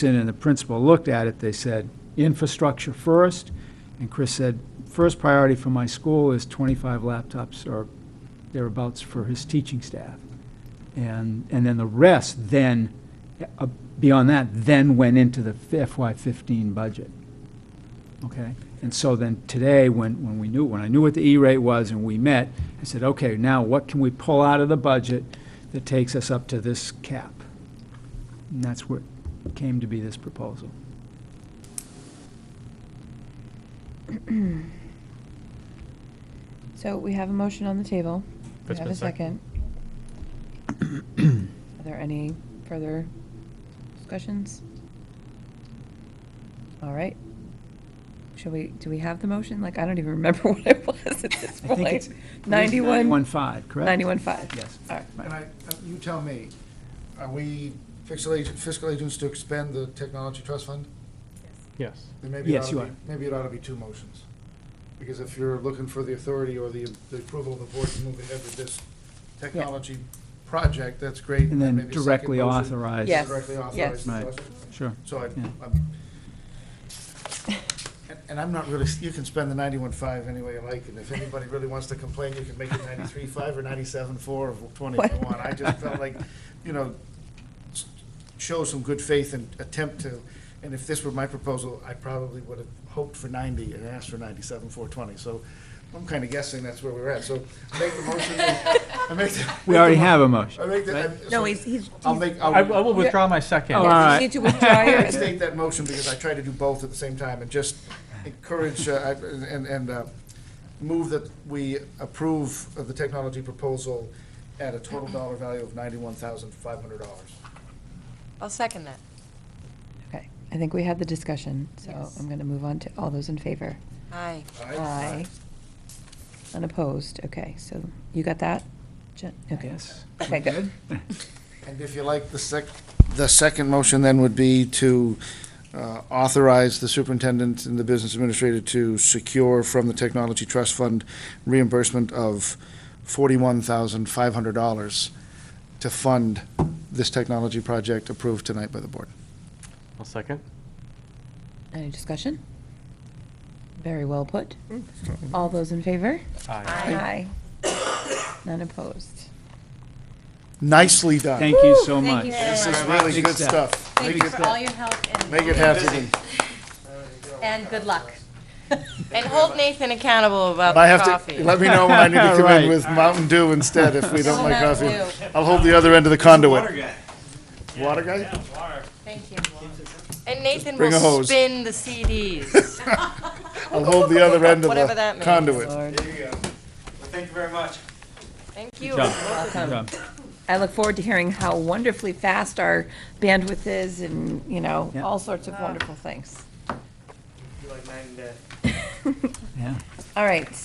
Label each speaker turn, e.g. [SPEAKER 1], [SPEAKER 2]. [SPEAKER 1] and the principal looked at it, they said, infrastructure first. And Chris said, first priority for my school is 25 laptops or thereabouts for his teaching staff. And, and then the rest then, uh, beyond that, then went into the FY15 budget. Okay? And so then today, when, when we knew, when I knew what the E-rate was and we met, I said, okay, now what can we pull out of the budget that takes us up to this cap? And that's what came to be this proposal.
[SPEAKER 2] So we have a motion on the table. We
[SPEAKER 3] It's
[SPEAKER 2] have
[SPEAKER 3] been
[SPEAKER 2] a second. Are there any further discussions? All right. Shall we, do we have the motion? Like, I don't even remember what it was at this
[SPEAKER 1] I think it's.
[SPEAKER 2] point. Ninety-one,
[SPEAKER 1] 91.5, correct?
[SPEAKER 2] ninety-one five.
[SPEAKER 1] Yes.
[SPEAKER 2] All right.
[SPEAKER 1] Right.
[SPEAKER 4] And I, you tell me, are we fiscal agent, fiscal agents to expend the technology trust fund?
[SPEAKER 3] Yes.
[SPEAKER 4] Then maybe it
[SPEAKER 1] Yes,
[SPEAKER 4] ought
[SPEAKER 1] you
[SPEAKER 4] to be-
[SPEAKER 1] are.
[SPEAKER 4] Maybe it ought to be two motions. Because if you're looking for the authority or the, the approval of the board to move ahead with this technology project, that's great.
[SPEAKER 1] And then
[SPEAKER 4] maybe a second
[SPEAKER 1] directly
[SPEAKER 4] motion
[SPEAKER 1] authorize.
[SPEAKER 4] to
[SPEAKER 2] Yes,
[SPEAKER 4] Directly
[SPEAKER 2] yes.
[SPEAKER 4] authorize the
[SPEAKER 1] Right.
[SPEAKER 4] trust.
[SPEAKER 1] Sure.
[SPEAKER 4] So I,
[SPEAKER 1] Yeah.
[SPEAKER 4] I'm, and- and I'm not really, you can spend the ninety-one five any way you like, and if anybody really wants to complain, you can make it ninety-three five or ninety-seven four or twenty if you want. I just felt like, you know, s- show some good faith and attempt to, and if this were my proposal, I probably would have hoped for ninety and asked for ninety-seven four twenty, so I'm kind of guessing that's where we're at, so make the motion. I make the-
[SPEAKER 1] We already have a motion.
[SPEAKER 4] I make the. I-
[SPEAKER 2] No, he's, he's.
[SPEAKER 4] I'll make.
[SPEAKER 3] I,
[SPEAKER 4] I'll-
[SPEAKER 3] I will withdraw my second.
[SPEAKER 1] Oh,
[SPEAKER 2] Yes,
[SPEAKER 1] all right.
[SPEAKER 2] You need to withdraw
[SPEAKER 4] I
[SPEAKER 2] your,
[SPEAKER 4] state that motion because I try to do both at the same time and just encourage uh, I- and, and uh, move that we approve of the technology proposal at a total dollar value of ninety-one thousand five hundred dollars.
[SPEAKER 5] I'll second that.
[SPEAKER 2] okay. I think we had the discussion, so
[SPEAKER 5] Yes.
[SPEAKER 2] I'm going to move on to all those in favor.
[SPEAKER 5] Aye.
[SPEAKER 2] Aye. Unopposed, okay, so you got that? Jen? Okay.
[SPEAKER 1] Yes.
[SPEAKER 2] Okay, good.
[SPEAKER 4] And if you like, the sec, the second motion then would be to uh, authorize the superintendent and the business administrator to secure from the Technology Trust Fund reimbursement of forty-one thousand five hundred dollars to fund this technology project approved tonight by the board.
[SPEAKER 3] I'll second.
[SPEAKER 2] Any discussion? Very well put. All those in favor?
[SPEAKER 3] Aye.
[SPEAKER 2] Aye. None opposed.
[SPEAKER 4] Nicely done.
[SPEAKER 1] Thank you so
[SPEAKER 6] Thank
[SPEAKER 1] much.
[SPEAKER 6] you
[SPEAKER 4] This
[SPEAKER 6] very
[SPEAKER 4] is
[SPEAKER 6] much.
[SPEAKER 4] really
[SPEAKER 1] Big
[SPEAKER 4] good
[SPEAKER 1] step.
[SPEAKER 4] stuff.
[SPEAKER 6] Thank
[SPEAKER 4] Make
[SPEAKER 6] you
[SPEAKER 4] it-
[SPEAKER 6] for all your help and.
[SPEAKER 4] Make it happen.
[SPEAKER 6] And good luck.
[SPEAKER 5] And hold Nathan accountable about
[SPEAKER 4] And I have
[SPEAKER 5] the
[SPEAKER 4] to,
[SPEAKER 5] coffee.
[SPEAKER 4] let me know when I need to come
[SPEAKER 1] Right.
[SPEAKER 4] in with Mountain Dew instead if we don't like
[SPEAKER 6] Mountain
[SPEAKER 4] coffee. I'll hold the other end of the conduit.
[SPEAKER 7] Water guy.
[SPEAKER 4] Water guy?
[SPEAKER 6] Thank you.
[SPEAKER 5] And Nathan
[SPEAKER 4] bring a
[SPEAKER 5] will
[SPEAKER 4] hose.
[SPEAKER 5] spin the CDs.
[SPEAKER 4] I'll hold the other end of
[SPEAKER 5] Whatever
[SPEAKER 4] the
[SPEAKER 5] that means.
[SPEAKER 4] conduit.
[SPEAKER 2] Lord,
[SPEAKER 7] There you go. Well, thank you very much.
[SPEAKER 5] Thank you.
[SPEAKER 1] job. Good job.
[SPEAKER 2] I look forward to hearing how wonderfully fast our bandwidth is and, you know,
[SPEAKER 1] Yeah.
[SPEAKER 2] all sorts of wonderful things.
[SPEAKER 7] You like night and day.
[SPEAKER 1] Yeah.
[SPEAKER 2] All right,